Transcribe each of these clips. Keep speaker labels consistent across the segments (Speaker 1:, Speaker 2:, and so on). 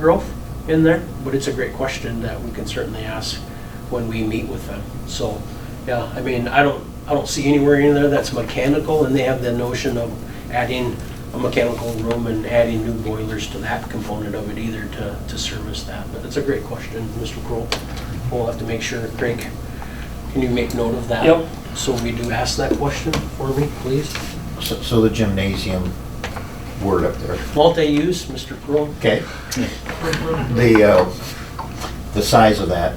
Speaker 1: growth in there, but it's a great question that we can certainly ask when we meet with them. So, yeah, I mean, I don't, I don't see anywhere in there that's mechanical, and they have the notion of adding a mechanical room and adding new boilers to that component of it either to, to service that. But it's a great question, Mr. Kroll. We'll have to make sure, Craig, can you make note of that?
Speaker 2: Yep.
Speaker 1: So we do ask that question for me, please.
Speaker 3: So, so the gymnasium word up there,
Speaker 1: Multi-use, Mr. Kroll?
Speaker 3: okay? The, uh, the size of that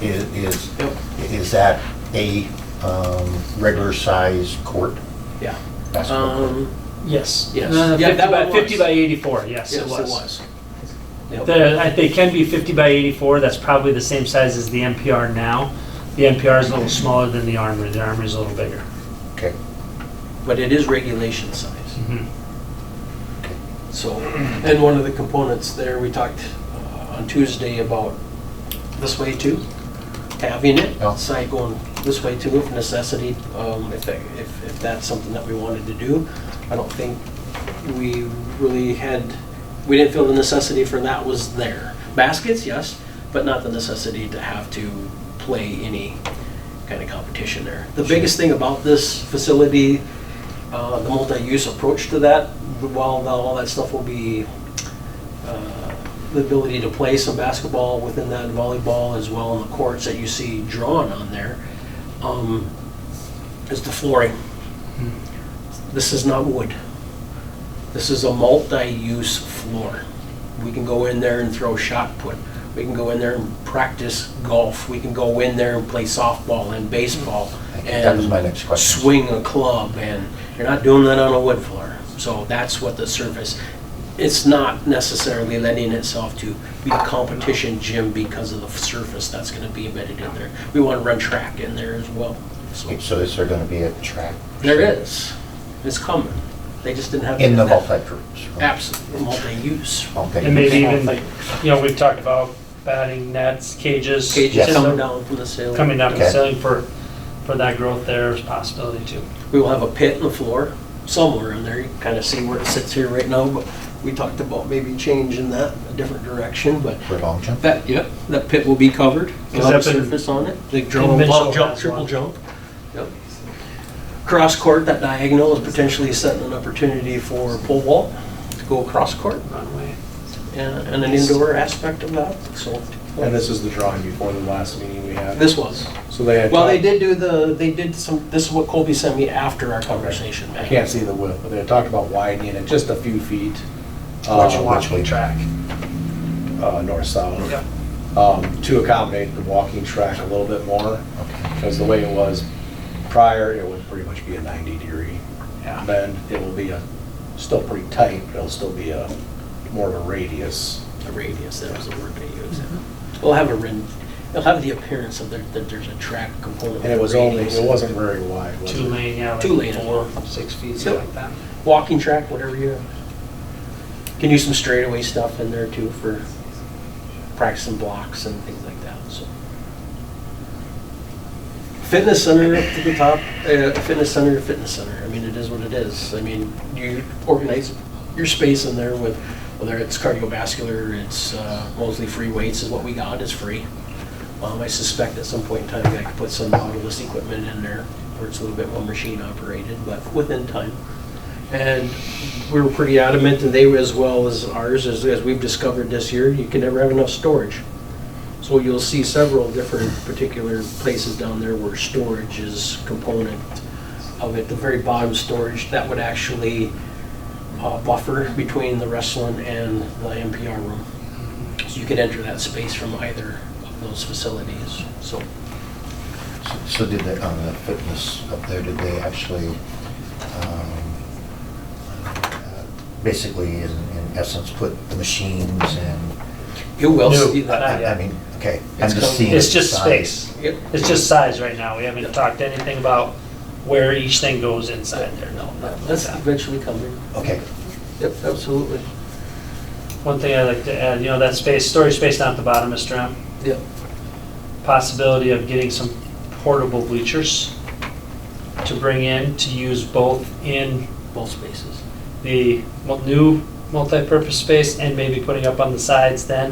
Speaker 3: is, is,
Speaker 1: Yep.
Speaker 3: is that a, um, regular size court?
Speaker 1: Yeah.
Speaker 3: basketball court?
Speaker 1: Um,
Speaker 2: Yes.
Speaker 1: Yes.
Speaker 2: Uh,
Speaker 1: Yeah,
Speaker 2: 50
Speaker 1: that
Speaker 2: by,
Speaker 1: one
Speaker 2: 50
Speaker 1: was.
Speaker 2: by 84, yes,
Speaker 1: Yes,
Speaker 2: it was.
Speaker 1: Yep.
Speaker 2: The- I- They can be 50 by 84, that's probably the same size as the NPR now. The NPR is a little smaller than the Armory, the Armory's a little bigger.
Speaker 3: Okay,
Speaker 1: but it is regulation size.
Speaker 2: Mhm.
Speaker 1: So, and one of the components there, we talked uh, on Tuesday about this way too, having it
Speaker 3: Yeah.
Speaker 1: outside going this way too, if necessity, um, if, that- if if that's something that we wanted to do. I don't think we really had, we didn't feel the necessity for that was there. Baskets, yes, but not the necessity to have to play any kind of competition there. The biggest thing about this facility, uh, the multi-use approach to that, while all that stuff will be uh, the ability to play some basketball within that volleyball as well in the courts that you see drawn on there, um, is the flooring.
Speaker 3: Hmm.
Speaker 1: This is not wood. This is a multi-use floor. We can go in there and throw shot put. We can go in there and practice golf. We can go in there and play softball and baseball.
Speaker 3: Thank you.
Speaker 1: and
Speaker 3: that was my next question.
Speaker 1: swing a club, and you're not doing that on a wood floor. So that's what the surface, it's not necessarily lending itself to be a competition gym because of the surface that's gonna be embedded in there. We wanna run track in there as well, so.
Speaker 3: Okay, So is there gonna be a track?
Speaker 1: There is, it's coming, they just didn't have.
Speaker 3: In the multi-purpose room?
Speaker 1: Absolutely, multi-use.
Speaker 3: Okay.
Speaker 2: And maybe even, you know, we've talked about batting nets, cages.
Speaker 1: Cages
Speaker 3: Yes.
Speaker 1: coming down from the ceiling.
Speaker 2: Coming down,
Speaker 3: Okay.
Speaker 2: selling for, for that growth there is a possibility too.
Speaker 1: We will have a pit in the floor somewhere in there. You can kind of see where it sits here right now, but we talked about maybe changing that a different direction, but
Speaker 3: For long jump?
Speaker 1: That, yep, that pit will be covered,
Speaker 2: Is
Speaker 1: We'll have a
Speaker 2: that been-
Speaker 1: surface on it, the jump,
Speaker 2: Mitchell
Speaker 1: long jump,
Speaker 2: has
Speaker 1: triple
Speaker 2: one.
Speaker 1: jump. Yep. Cross court, that diagonal is potentially setting an opportunity for pole vault to go across court
Speaker 2: Runway.
Speaker 1: and and an indoor aspect of that, so.
Speaker 4: And this is the drawing before the last meeting we had.
Speaker 1: This was,
Speaker 4: So they had.
Speaker 1: well, they did
Speaker 4: talked-
Speaker 1: do the, they did some, this is what Colby sent me after our conversation,
Speaker 4: I
Speaker 1: Matt.
Speaker 4: can't see the width, but they had talked about widening it just a few feet.
Speaker 3: Watch-
Speaker 4: um,
Speaker 3: watch me.
Speaker 4: Track. Uh, north, south.
Speaker 2: Yep.
Speaker 4: Um, to accommodate the walking track a little bit more,
Speaker 3: Okay.
Speaker 4: because the way it was prior, it would pretty much be a ninety degree
Speaker 2: Yeah.
Speaker 4: bend. It will be a, still pretty tight, but it'll still be a, more of a radius.
Speaker 1: A radius, that was the word they used. We'll have a, ren- it'll have the appearance of there, that there's a track component.
Speaker 4: And it was
Speaker 1: with
Speaker 4: only,
Speaker 1: radius.
Speaker 4: it wasn't very wide, was it?
Speaker 2: Two lane, yeah. like
Speaker 1: Two lane.
Speaker 2: Four, six feet,
Speaker 1: Yep.
Speaker 2: something like that.
Speaker 1: walking track, whatever you can do some straightaway stuff in there too for practicing blocks and things like that. So fitness center up to the top, uh, fitness center, fitness center. I mean, it is what it is. I mean, you organize your space in there with whether it's cardiovascular, it's uh, mostly free weights is what we got is free. Um, I suspect at some point in time I could put some Nautilus equipment in there where it's a little bit more machine operated, but within time. And we were pretty adamant, and they were as well as ours, as, as we've discovered this year, you can never have enough storage. So you'll see several different particular places down there where storage is component of it. The very bottom storage, that would actually uh, buffer between the wrestling and the NPR room. So you could enter that space from either of those facilities, so.
Speaker 3: So did they, on the fitness up there, did they actually, um, uh, basically in in essence, put the machines and,
Speaker 1: You will
Speaker 2: No,
Speaker 1: see
Speaker 2: Not
Speaker 3: I-
Speaker 1: that.
Speaker 3: I
Speaker 2: yet.
Speaker 3: mean, okay, I'm
Speaker 1: It's
Speaker 3: just
Speaker 1: com-
Speaker 3: seeing.
Speaker 2: It's
Speaker 3: the
Speaker 2: just
Speaker 3: size.
Speaker 2: space.
Speaker 1: Yep.
Speaker 2: It's just size right now. We haven't talked anything about where each thing goes inside there. No, nothing like
Speaker 1: That's
Speaker 2: that.
Speaker 1: eventually coming.
Speaker 3: Okay,
Speaker 1: Yep, absolutely.
Speaker 2: One thing I'd like to add, you know, that space, storage space down at the bottom, Mr. M,
Speaker 1: Yep.
Speaker 2: possibility of getting some portable bleachers to bring in, to use both in
Speaker 1: Both spaces.
Speaker 2: the mo- new multi-purpose space and maybe putting up on the sides then.